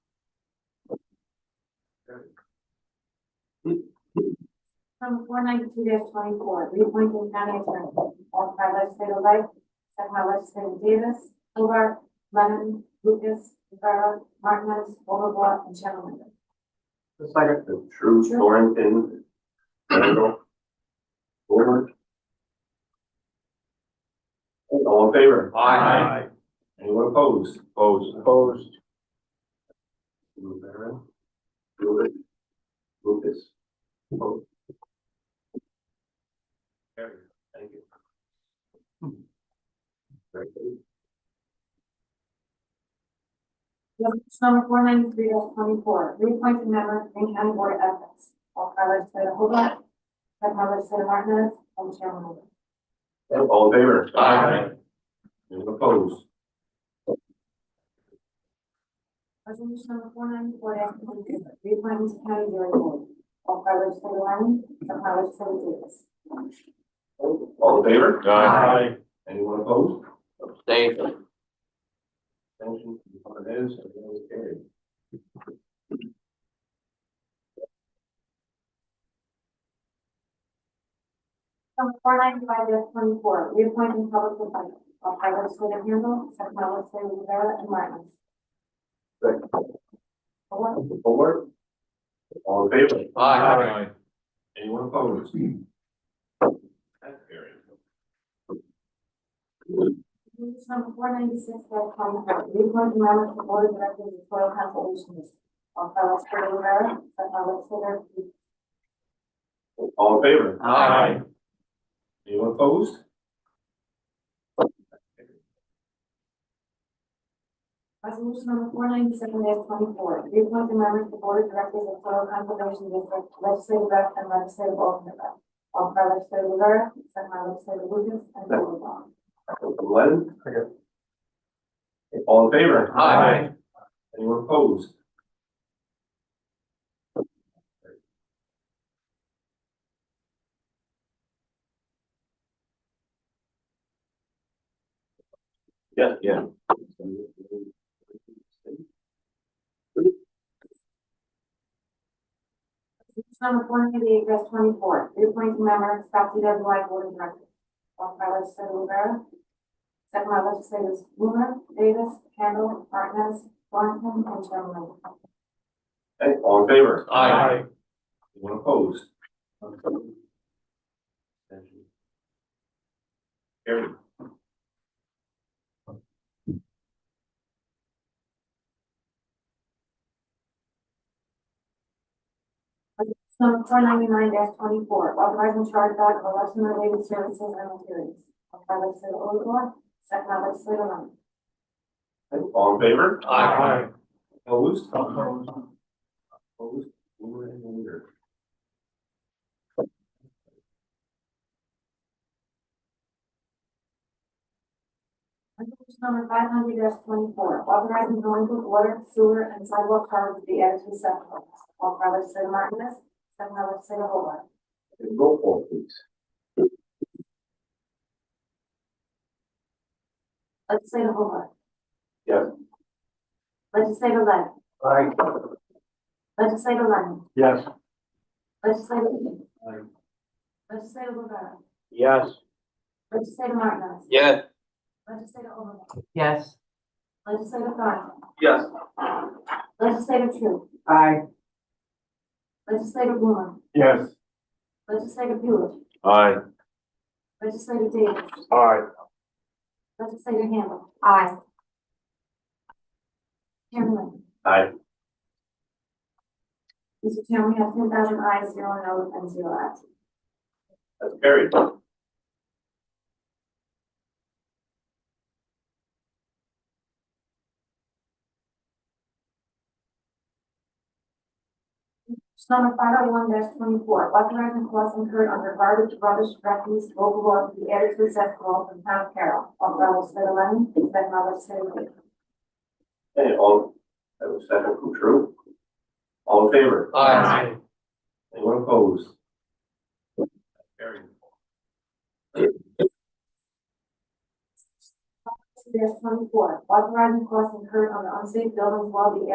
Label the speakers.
Speaker 1: From four ninety-two twenty-four, reappointing county attorney, offered by legislator Wright, second by legislator Davis, Hobart, Lennon, Lucas, Rivera, Martinez, Overblock, and Chandler.
Speaker 2: The second.
Speaker 3: True, Thornton, Randall, Ford. All in favor?
Speaker 2: Aye.
Speaker 3: Anyone opposed? Opposed.
Speaker 2: Opposed.
Speaker 3: Rivera. Lewis. Lucas. Opposed. Carried. Thank you. Very good.
Speaker 1: Resolution number four ninety-three twenty-four, reappointing member, Green County Board of Ethics, offered by legislator Hobart, second by legislator Martinez, and Chandler.
Speaker 3: All in favor?
Speaker 2: Aye.
Speaker 3: Anyone opposed?
Speaker 1: Resolution number four ninety-four twenty-two, reappointing to county jury board, offered by legislator Lennon, second by legislator Davis.
Speaker 3: All in favor?
Speaker 2: Aye.
Speaker 3: Anyone opposed?
Speaker 2: Abstain.
Speaker 3: Abstention, one is, and one is carried.
Speaker 1: Number four ninety-five twenty-four, reappointing public defender, of by legislative Handle, second by legislative Rivera and Martinez.
Speaker 3: Second.
Speaker 1: Four,
Speaker 3: Four. All in favor?
Speaker 2: Aye.
Speaker 3: Anyone opposed? That's carried.
Speaker 1: resolution number four ninety-six twenty-four, reappointing members of the board of directors of soil conservation district, of by legislative Rivera, second by legislative Hughes.
Speaker 3: All in favor?
Speaker 2: Aye.
Speaker 3: Anyone opposed?
Speaker 1: Resolution number four ninety-seven twenty-four, reappointing members of the board of directors of soil conservation district, legislative rep and legislative alternate rep, of by legislative Rivera, second by legislative Lucas and Overbaugh.
Speaker 3: Eleven? All in favor?
Speaker 2: Aye.
Speaker 3: Anyone opposed? Yeah, yeah.
Speaker 1: Resolution number four ninety-eight twenty-four, reappointing member Scott D. W. Y. Board of Directors. Offered by legislator Rivera. Second by legislators Blumer, Davis, Kendall, Martinez, Thornton, and Chairman.
Speaker 3: Okay, all in favor?
Speaker 2: Aye.
Speaker 3: Anyone opposed? Carried.
Speaker 1: Resolution number four ninety-nine twenty-four, authorizing charge back of election-related services and materials. Offered by legislator Overbaugh, second by legislator Lemon.
Speaker 3: Okay, All in favor?
Speaker 2: Aye.
Speaker 3: Opposed? Opposed, mover and leader.
Speaker 1: Resolution number five hundred twenty-four, authorizing delinquent water, sewer, and sidewalk charges to be added to the supplemental. Offered by legislator Martinez, second by legislator Hobart.
Speaker 3: Okay, Roll call, please.
Speaker 1: Legislative Hobart.
Speaker 3: Yes.
Speaker 1: Legislative Lennon.
Speaker 3: Aye.
Speaker 1: Legislative Lennon.
Speaker 2: Yes.
Speaker 1: Legislative Lee.
Speaker 3: Aye.
Speaker 1: Legislative Rivera.
Speaker 2: Yes.
Speaker 1: Legislative Martinez.
Speaker 2: Yes.
Speaker 1: Legislative Overbaugh.
Speaker 4: Yes.
Speaker 1: Legislative Thornton.
Speaker 2: Yes.
Speaker 1: Legislative Tru.
Speaker 4: Aye.
Speaker 1: Legislative Blumer.
Speaker 2: Yes.
Speaker 1: Legislative Buick.
Speaker 3: Aye.
Speaker 1: Legislative Davis.
Speaker 2: Aye.
Speaker 1: Legislative Handle. Aye. Chairman Linder.
Speaker 3: Aye.
Speaker 1: Mr. Chairman, we have ten thousand ayes, zero no's, and zero abstentions.
Speaker 3: That's carried.
Speaker 1: Number five oh one twenty-four, authorizing costs incurred under garbage, rubbish, refuse, overall, the added to assess role from town of Carroll, on level seven eleven, second level seven eight.
Speaker 3: Okay, all, that was second from true. All in favor?
Speaker 2: Aye.
Speaker 3: Anyone opposed? Carried.
Speaker 1: twenty-four, authorizing costs incurred on the unsafe buildings while the